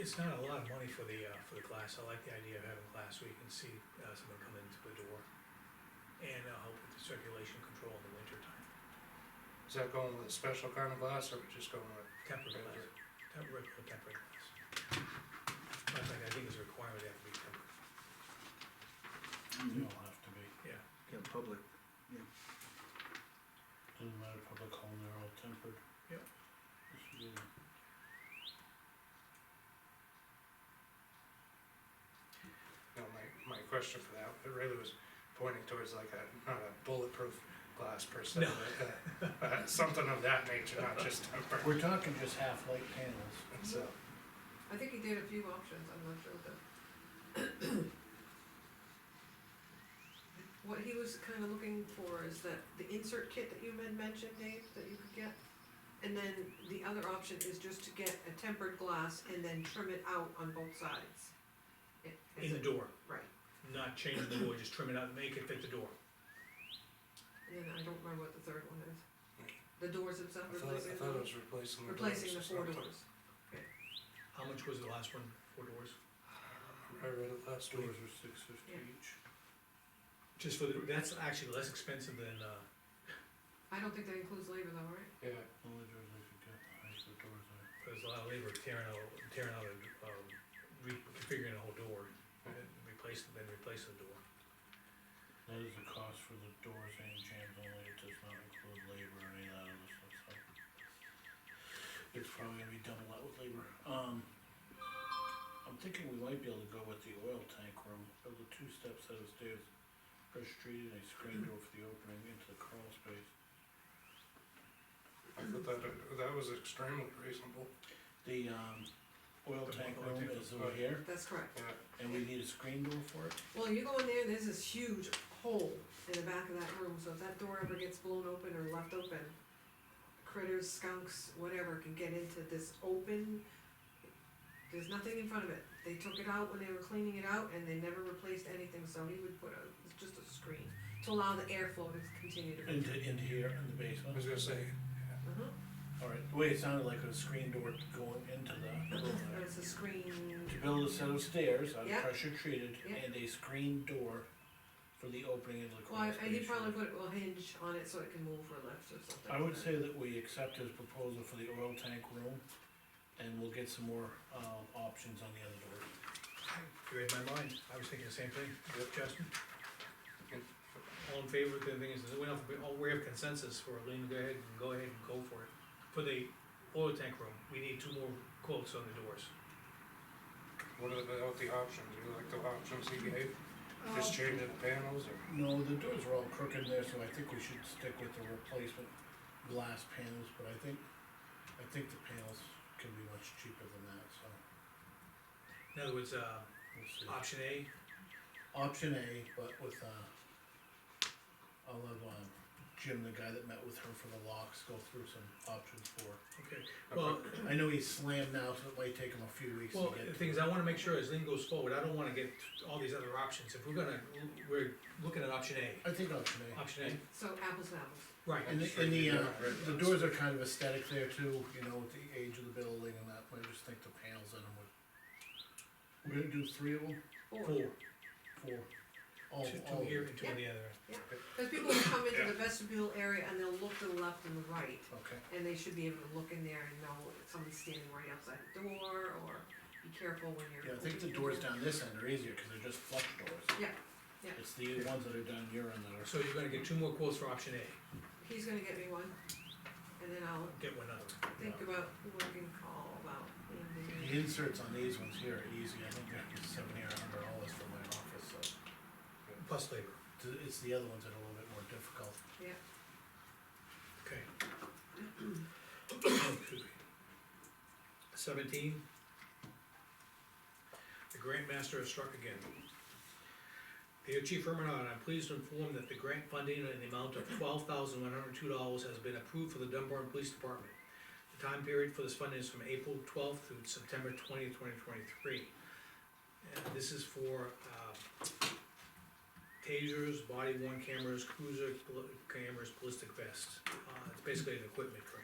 It's not a lot of money for the, uh, for the class, I like the idea of having class where you can see, uh, someone come into the door. And uh, help with the circulation control in the winter time, Is that going with a special kind of glass, or we just going with? tempered glass, tempered, uh, tempered glass. Matter of fact, I think it's a requirement they have to be tempered, They all have to be, yeah, Yeah, public, doesn't matter public home, they're all tempered. Yep. This should be- No, my, my question for that, it really was pointing towards like a, not a bulletproof glass per se, No. but, uh, uh, something of that nature, not just tempered, We're talking just half light panels. so. I think he did a few options, I'm not sure though. What he was kinda looking for is that the insert kit that you had mentioned, Dave, that you could get. And then the other option is just to get a tempered glass and then trim it out on both sides. It- as in the a- door, Right, not change the door, just trim it out, make it fit the door. and then I don't remember what the third one is. The doors I themselves thought, I replacing thought it the, was replacing the doors. replacing the or four something. doors. How much was the last one, four doors? I read it last week. Doors are six fifty Yeah. each. Just for the, that's actually less expensive than, uh, I don't think that includes labor though, right? Yeah, Only doors I could get, the highest the doors are. there's a lot of labor tearing out, tearing out, and, um, reconfiguring the whole door, and replace, then replacing the door. That is the cost for the doors and jams only, it does not include labor or any of that other stuff, so. It's probably gonna be done a lot with labor, um. I'm thinking we might be able to go with the oil tank room, of the two steps set of stairs, pressure treated, a screen door for the opening into the crawl space. I thought that, that was extremely reasonable, The, um, oil The tank oil room tank is over here, That's correct. yeah. and we need a screen door for it, Well, you go in there, there's this huge hole in the back of that room, so if that door ever gets blown open or left open, critters, skunks, whatever can get into this open, there's nothing in front of it. They took it out when they were cleaning it out and they never replaced anything, so he would put a, it's just a screen to allow the airflow to continue to. into, into here in the I was basement. gonna say, Uh-huh, Mm-hmm. Alright, the way it sounded like a screen door going into the room there. and it's a screen, To build a set of stairs out Yeah. of pressure treated Yeah. and a screen door for the opening into the well, crawl I- he space. probably put a hinge on it so it can move or lift or something. I would say that we accept his proposal for the oil tank room, and we'll get some more, uh, options on the other doors. You read my mind, I was thinking the same thing, Justin? Good. All in favor, the thing is, we don't, we all- we have consensus for it, Lean, go ahead, and go ahead and go for it. For the oil tank room, we need two more quotes on the doors. what are the, what the options, you like the options he gave, Um, just changing the panels or? No, the doors are all crooked there, so I think we should stick with the replacement glass panels, but I think, I think the panels can be much cheaper than that, so. In other words, uh, we'll see. option A, Option A, but with, uh, I'll have, um, Jim, the guy that met with her for the locks, go through some options for. okay, well, I know he's slammed now, so it might take him a few weeks to well, get. the to thing is, I it. wanna make sure as Lean goes forward, I don't wanna get all these other options, if we're gonna, we're looking at option A. I think option A. Option A, So apples to apples. right, And the, and the, uh, the doors are kind of aesthetic there too, you know, with the age of the building and that, I just think the panels in them would. We're gonna do three of them, Or- four, four, all, two, all. two here and two on the other. Cause people will come into the vestibule area and they'll look to the left and the right, Okay, and they should be able to look in there and know if someone's standing right outside the door, or be careful when you're. yeah, I think the opening doors down this end are easier, cause they're just flush doors. Yeah, yeah. It's the ones that are down your end that are. So you're gonna get two more quotes for option A. He's gonna get me one, and then I'll get one other. think about who I can call about. The inserts on these ones here are easy, I think they're seventy or a hundred dollars for my office, so Plus labor. th- it's the other ones that are a little bit more difficult. Okay. Excuse me. Seventeen. The grant master has struck again. Dear Chief Remenon, I'm pleased to inform that the grant funding in the amount of twelve thousand one hundred two dollars has been approved for the Dunbar Police Department. The time period for this funding is from April twelfth through September twentieth, twenty twenty-three. And this is for, um, tasers, body worn cameras, cruiser pl- cameras, ballistic vests. Uh, it's basically an equipment grant.